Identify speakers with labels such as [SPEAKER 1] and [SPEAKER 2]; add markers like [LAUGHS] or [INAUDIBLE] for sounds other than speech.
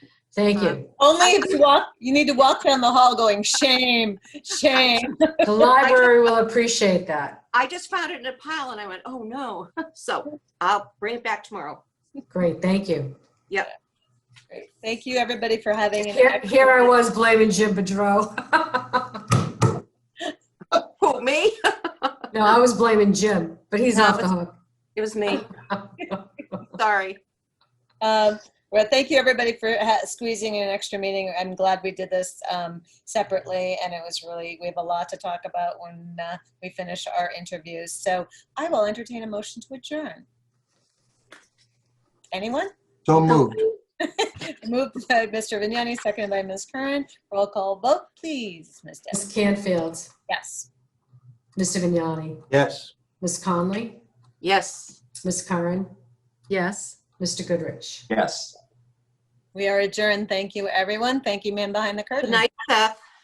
[SPEAKER 1] Thank you.
[SPEAKER 2] Only if you walk, you need to walk down the hall going, shame, shame.
[SPEAKER 1] The library will appreciate that.
[SPEAKER 3] I just found it in a pile and I went, oh no. [LAUGHS] So I'll bring it back tomorrow.
[SPEAKER 1] Great, thank you.
[SPEAKER 2] Thank you, everybody, for having an
[SPEAKER 1] Here here I was blaming Jim Bedrow.
[SPEAKER 3] Who, me?
[SPEAKER 1] [LAUGHS] No, I was blaming Jim, but he's off the hook.
[SPEAKER 3] It was me. Sorry.
[SPEAKER 2] Um, Well, thank you, everybody, for ha- squeezing in an extra meeting. I'm glad we did this um, separately, and it was really, we have a lot to talk about when uh, we finish our interviews. So I will entertain a motion to adjourn. Anyone?
[SPEAKER 4] So moved.
[SPEAKER 2] Moved by Mr. Vignani, seconded by Ms. Curran. Roll call vote, please, Ms.
[SPEAKER 1] Ms.
[SPEAKER 2] Dennis.
[SPEAKER 1] Canfield,
[SPEAKER 2] Yes.
[SPEAKER 1] Mr. Vignani,
[SPEAKER 4] Yes.
[SPEAKER 1] Ms. Conley,
[SPEAKER 3] Yes.
[SPEAKER 1] Ms. Curran,
[SPEAKER 5] Yes.
[SPEAKER 1] Mr. Goodrich.
[SPEAKER 4] Yes.
[SPEAKER 2] We are adjourned. Thank you, everyone. Thank you, man behind the curtain.
[SPEAKER 3] Good night, Seth.